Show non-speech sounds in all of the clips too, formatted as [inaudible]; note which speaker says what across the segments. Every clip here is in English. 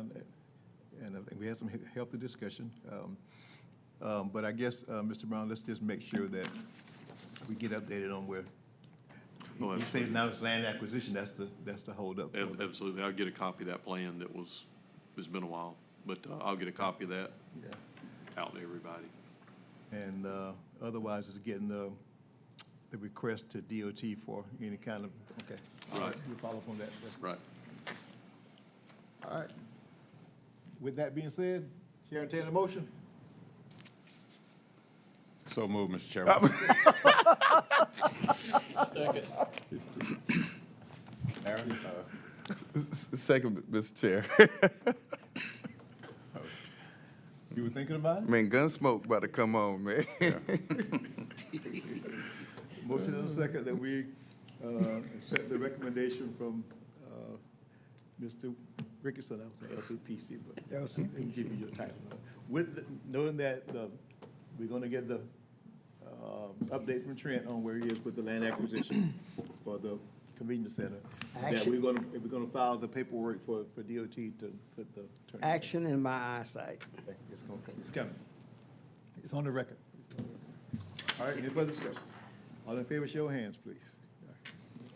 Speaker 1: and, Um, and I think we had some he- healthy discussion. Um, um, But I guess, uh, Mr. Brown, let's just make sure that we get updated on where,
Speaker 2: Oh,
Speaker 1: you say now it's land acquisition, that's the, that's the holdup. for
Speaker 2: Ab-
Speaker 1: the-
Speaker 2: Absolutely. I'll get a copy of that plan that was, it's been a while, but uh, I'll get a copy of that
Speaker 1: Yeah.
Speaker 2: out to everybody.
Speaker 1: And uh, otherwise, it's getting the, the request to DOT for any kind of, okay. All
Speaker 2: Right.
Speaker 1: We'll follow up on that. That's-
Speaker 2: Right.
Speaker 1: All right. With that being said, Chair, entertain a motion.
Speaker 3: So moved, Mr. Chairman.
Speaker 4: Second, Mr. Chair.
Speaker 1: You were thinking about it?
Speaker 4: [laughs] Man, Gunsmoke about to come on, man.
Speaker 1: Motion and a second that we uh, accept the recommendation from uh, Mr. Rickerson, I was saying LCPC, but. LCPC. Give you your title. With, the- knowing that uh, we're going to get the um, update from Trent on where he is with the land acquisition [coughs] for the convenience center. That we're
Speaker 5: Action.
Speaker 1: going to, we're going to file the paperwork for, for DOT to put the. turn-
Speaker 5: Action in my eyesight.
Speaker 1: It's going, it's coming. It's on the record. All right, any further discussion? All in favor, show of hands, please.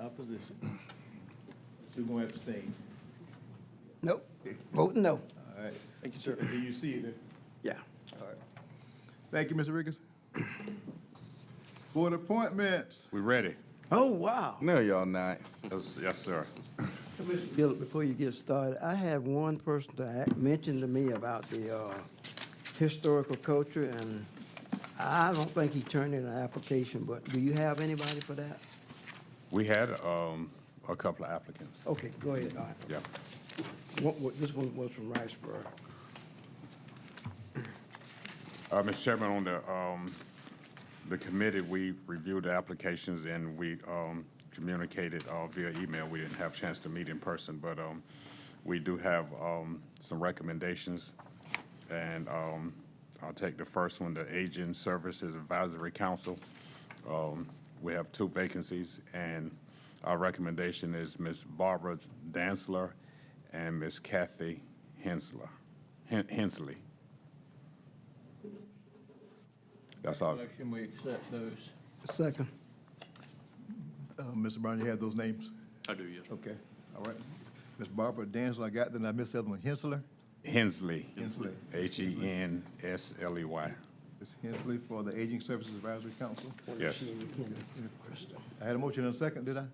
Speaker 1: Opposition. Two going to abstain.
Speaker 5: Nope, voting no.
Speaker 1: All right. Thank you, sir. Do you see it?
Speaker 5: Yeah.
Speaker 1: All right. Thank you, Mr. Ricketts. Board appointments.
Speaker 3: We ready?
Speaker 5: Oh, wow.
Speaker 4: No, y'all not.
Speaker 3: Yes, yes, sir.
Speaker 5: Bill, before you get started, I have one person to act, mentioned to me about the, uh, historical culture, and I don't think he turned in an application, but do you have anybody for that?
Speaker 3: We had um, a couple of applicants.
Speaker 5: Okay, go ahead, all right.
Speaker 3: Yeah.
Speaker 5: What- what- this one was from Riceboro.
Speaker 3: Uh, Mr. Chairman, on the, um, the committee, we reviewed the applications and we um, communicated uh, via email. We didn't have a chance to meet in person, but um, we do have um, some recommendations. And um, I'll take the first one, the Aging Services Advisory Council. Um, We have two vacancies, and our recommendation is Ms. Barbara Dansler and Ms. Kathy Hensler, Hen- Hensley. That's all.
Speaker 6: Motion, we accept those.
Speaker 5: Second.
Speaker 1: Uh, Mr. Brown, you have those names?
Speaker 2: I do, yes.
Speaker 1: Okay, all right. Ms. Barbara Danzel, I got, then I missed the other one, Hensler?
Speaker 3: Hensley. E
Speaker 1: Hensley.
Speaker 3: H-E-N-S-L-E-Y.
Speaker 1: Ms. Hensley for the Aging Services Advisory Council.
Speaker 3: Yes,
Speaker 1: I had a motion and a second, did I?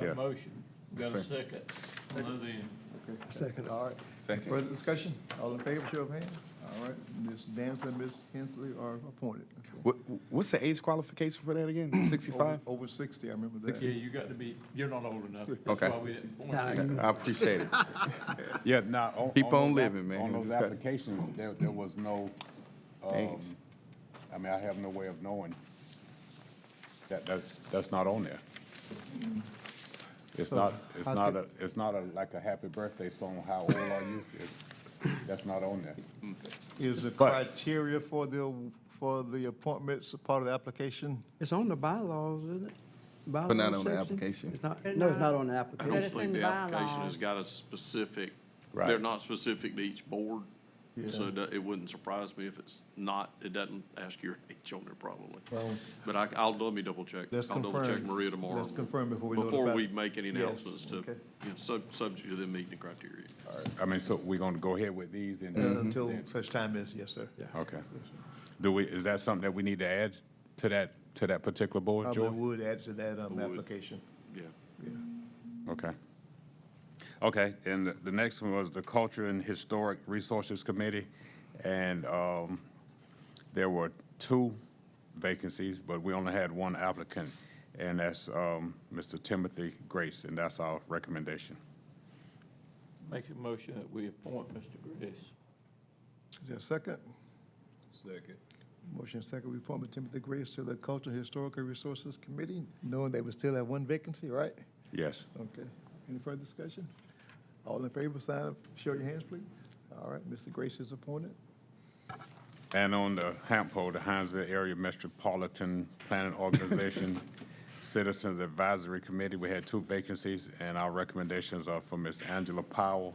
Speaker 3: Yeah.
Speaker 6: A motion. Got a second. Hello then.
Speaker 5: Second.
Speaker 1: All right.
Speaker 4: Second.
Speaker 1: Further discussion? All in favor, show of hands. All right, Ms. Dancer and Ms. Hensley are appointed. Okay.
Speaker 4: What, what's the age qualification for that [clears throat] again? Sixty-five?
Speaker 1: Over over sixty, I remember
Speaker 6: Yeah,
Speaker 1: that.
Speaker 6: you got to be, you're not old enough.
Speaker 4: Okay.
Speaker 6: That's why we didn't point
Speaker 5: Nah,
Speaker 6: you.
Speaker 5: you-
Speaker 4: I appreciate it.
Speaker 3: yeah, now.
Speaker 4: Keep on living, man.
Speaker 3: On those
Speaker 4: Just got-
Speaker 3: applications, there, there was no, um,
Speaker 4: Thanks.
Speaker 3: I mean, I have no way of knowing. That, that's, that's not on there. It's
Speaker 1: So
Speaker 3: not, it's
Speaker 1: how
Speaker 3: not a,
Speaker 1: could-
Speaker 3: it's not a, like a happy birthday song, how old are you? It's- That's not on there.
Speaker 1: Is the
Speaker 3: But-
Speaker 1: criteria for the, for the appointments a part of the application? Uh,
Speaker 5: It's on the bylaws, isn't it?
Speaker 4: But not on
Speaker 5: Bylaws
Speaker 4: the
Speaker 5: section?
Speaker 4: application.
Speaker 5: It's not, no, it's not on the
Speaker 2: I
Speaker 5: application.
Speaker 2: don't
Speaker 7: it's in
Speaker 2: think the
Speaker 7: the
Speaker 2: application has
Speaker 7: bylaws.
Speaker 2: got a specific,
Speaker 3: Right.
Speaker 2: they're not specific to each board. So
Speaker 1: Yeah.
Speaker 2: it do- it wouldn't surprise me if it's not, it doesn't ask your [laughs] age on there probably.
Speaker 1: Well-
Speaker 2: But I, I'll, let me double check.
Speaker 1: Let's
Speaker 2: I'll double check
Speaker 1: confirm.
Speaker 2: Maria tomorrow.
Speaker 1: Let's confirm before we
Speaker 2: Before
Speaker 1: notify-
Speaker 2: we make any
Speaker 1: Yes,
Speaker 2: announcements to,
Speaker 1: okay.
Speaker 2: you know, sub, subject to them meeting the criteria.
Speaker 3: I mean, so we're gonna go ahead with these and.
Speaker 4: Mm-hmm.
Speaker 1: Until such time as, yes, sir.
Speaker 3: Okay. Do we, is that something that we need to add to that, to that particular board,
Speaker 1: Probably
Speaker 3: George?
Speaker 1: would add to that, um,
Speaker 2: Would.
Speaker 1: application.
Speaker 2: Yeah.
Speaker 3: Okay. Okay, and the- the next one was the Culture and Historic Resources Committee. And um, there were two vacancies, but we only had one applicant, and that's um, Mr. Timothy Grace, and that's our recommendation.
Speaker 6: Make a motion that we appoint Mr. Grace.
Speaker 1: Is there a second? Second. Motion and second, we appoint Timothy Grace to the Cultural Historical Resources Committee, knowing that we still have one vacancy, right?
Speaker 3: Yes.
Speaker 1: Okay. Any further discussion? All in favor, sign up, show your hands, please. All right, Mr. Grace is appointed.
Speaker 3: And on the HAMPO, the Hinesville Area Metropolitan Planning Organization Citizens Advisory Committee, we had two vacancies, and our recommendations are for Ms. Angela Powell